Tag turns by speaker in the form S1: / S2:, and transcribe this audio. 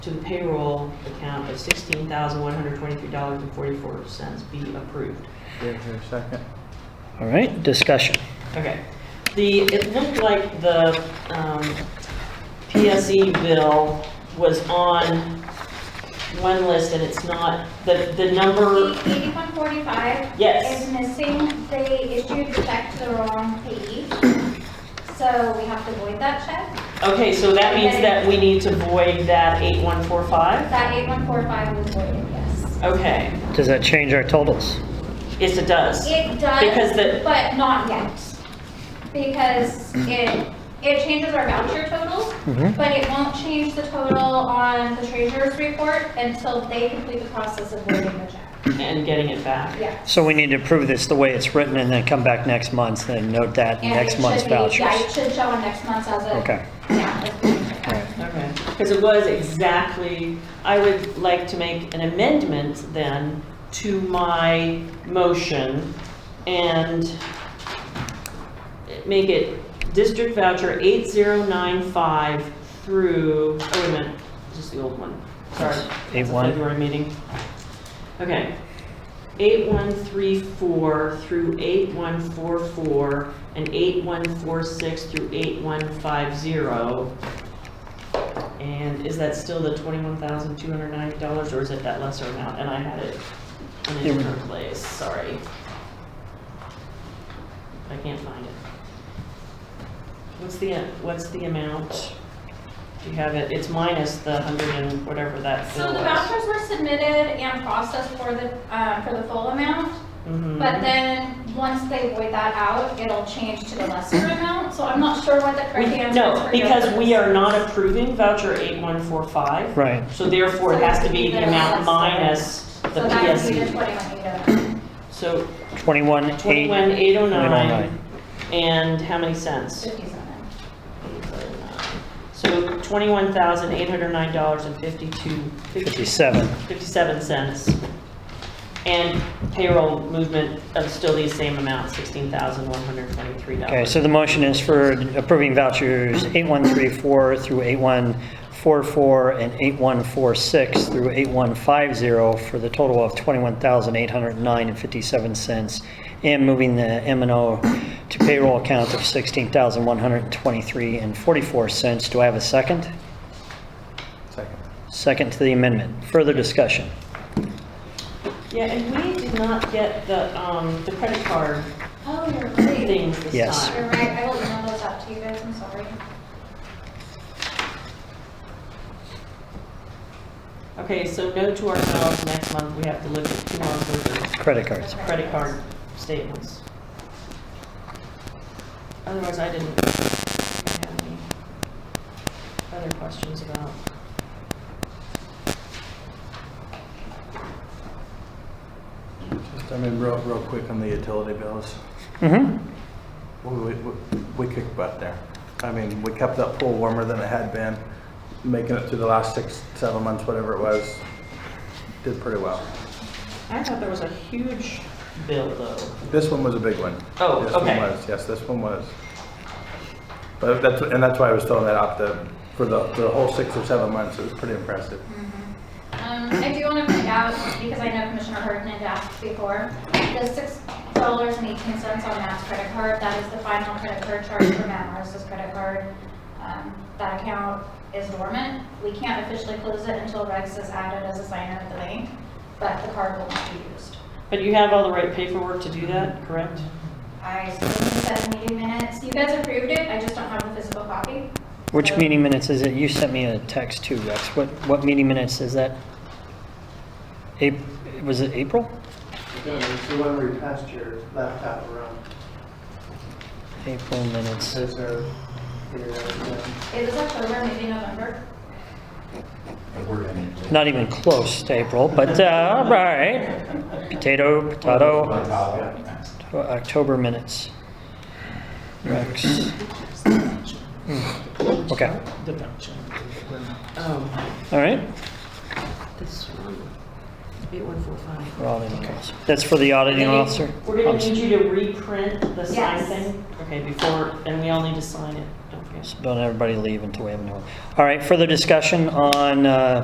S1: to the payroll account of $16,123.44 be approved.
S2: Is there a second?
S3: All right, discussion.
S1: Okay. The, it looked like the um, PSE bill was on one list and it's not, the, the number,
S4: 8145
S1: yes.
S4: is missing. They issued the check to the wrong page, so we have to void that check.
S1: Okay, so that means that we need to void that 8145?
S4: That 8145 was voided, yes.
S1: Okay,
S3: Does that change our totals?
S1: yes, it does.
S4: It
S1: Because the-
S4: does, but not yet. Because it, it changes our voucher total,
S3: Mhm.
S4: but it won't change the total on the treasurer's report until they complete the process of voiding the check.
S1: And getting it back.
S4: Yeah.
S3: So we need to approve this the way it's written and then come back next month and note that in
S4: And it
S3: next
S4: should
S3: month's
S4: be- Yeah, it
S3: vouchers.
S4: should show on next month's as a.
S3: Okay.
S4: Yeah. as a-
S3: All right.
S1: Okay, because it was exactly, I would like to make an amendment then to my motion and make it district voucher 8095 through, oh, wait a minute, this is the old one, sorry.
S3: Yes,
S1: That's a
S3: 81.
S1: February meeting. Okay. 8134 through 8144 and 8146 through 8150. And is that still the $21,209 or is it that lesser amount? And I had it in a
S3: Yeah.
S1: different place, sorry. I can't find it. What's the, what's the amount? Do you have it? It's minus the 100 and whatever that bill
S4: So
S1: was.
S4: the vouchers were submitted and processed for the, um, for the full amount,
S1: Mhm.
S4: but then, once they void that out, it'll change to the lesser amount, so I'm not sure what the
S1: We-
S4: correct answer is.
S1: No,
S4: for your
S1: because we
S4: purpose.
S1: are not approving voucher 8145.
S3: Right.
S1: So therefore, it has to be the amount minus the
S4: So that would be the
S1: PSE.
S4: twenty-one eight oh.
S1: So
S3: 21, 8,
S1: 21,809,
S3: 809.
S1: and how many cents?
S4: Fifty-seven.
S1: So $21,809.52,
S3: 57.
S1: 57 cents. And payroll movement of still the same amount, $16,123.
S3: Okay, so the motion is for approving vouchers 8134 through 8144 and 8146 through 8150 for the total of $21,809.57 and moving the M and O to payroll account of $16,123.44. Do I have a second?
S2: Second.
S3: Second to the amendment. Further discussion?
S1: Yeah, and we did not get the, um, the credit card
S4: Oh, you're right.
S1: things this time.
S3: Yes.
S4: You're right, I will email those out to you guys, I'm sorry.
S1: Okay, so note to ourselves, next month, we have to look at two months worth
S3: Credit cards.
S1: of credit card statements. Otherwise, I didn't have any other questions about.
S2: Just, I mean, real, real quick on the utility bills.
S3: hmm
S2: We, we, we- we kicked butt there. I mean, we kept that pool warmer than it had been, making it through the last six, seven months, whatever it was. Did pretty well.
S1: I thought there was a huge bill, though.
S2: This one was a big one.
S1: Oh,
S2: This one
S1: okay.
S2: was, Yes, this one was. But that's, and that's why I was throwing that out the, for the, the whole six or seven months. It was pretty impressive.
S4: Um, I do want to point out, because I know Commissioner Harden had asked before, the six dollars and eighteen cents on Matt's credit card, that is the final credit card charge for Matt Morris's credit card. Um, That account is dormant. We can't officially close it until Rex is added as a signer at the bank, but the card will not be used.
S1: But you have all the right paperwork to do that, correct?
S4: I still need that meeting minutes. You guys approved it, I just don't have the physical copy.
S3: Which
S4: So-
S3: meeting minutes is it? You sent me a text too, Rex. What, what meeting minutes is that? Ap- was it April?
S5: Yeah, it's the one where you passed your laptop around,
S3: April minutes.
S5: because they're, they're, um,
S4: It was October, maybe November.
S3: Not even close to April, but, uh, all right. Potato, potato, October minutes. Rex. Hmm, Okay,
S1: The voucher. Oh,
S3: all right.
S1: this one, 8145.
S3: We're all in calls. That's for the auditing officer?
S1: We're gonna
S3: I'm
S1: need you to reprint the sign
S4: Yes.
S1: thing. Okay, before, and we all need to sign it, don't forget.
S3: s- Don't everybody leave until we have a new one. All right, further discussion on, uh,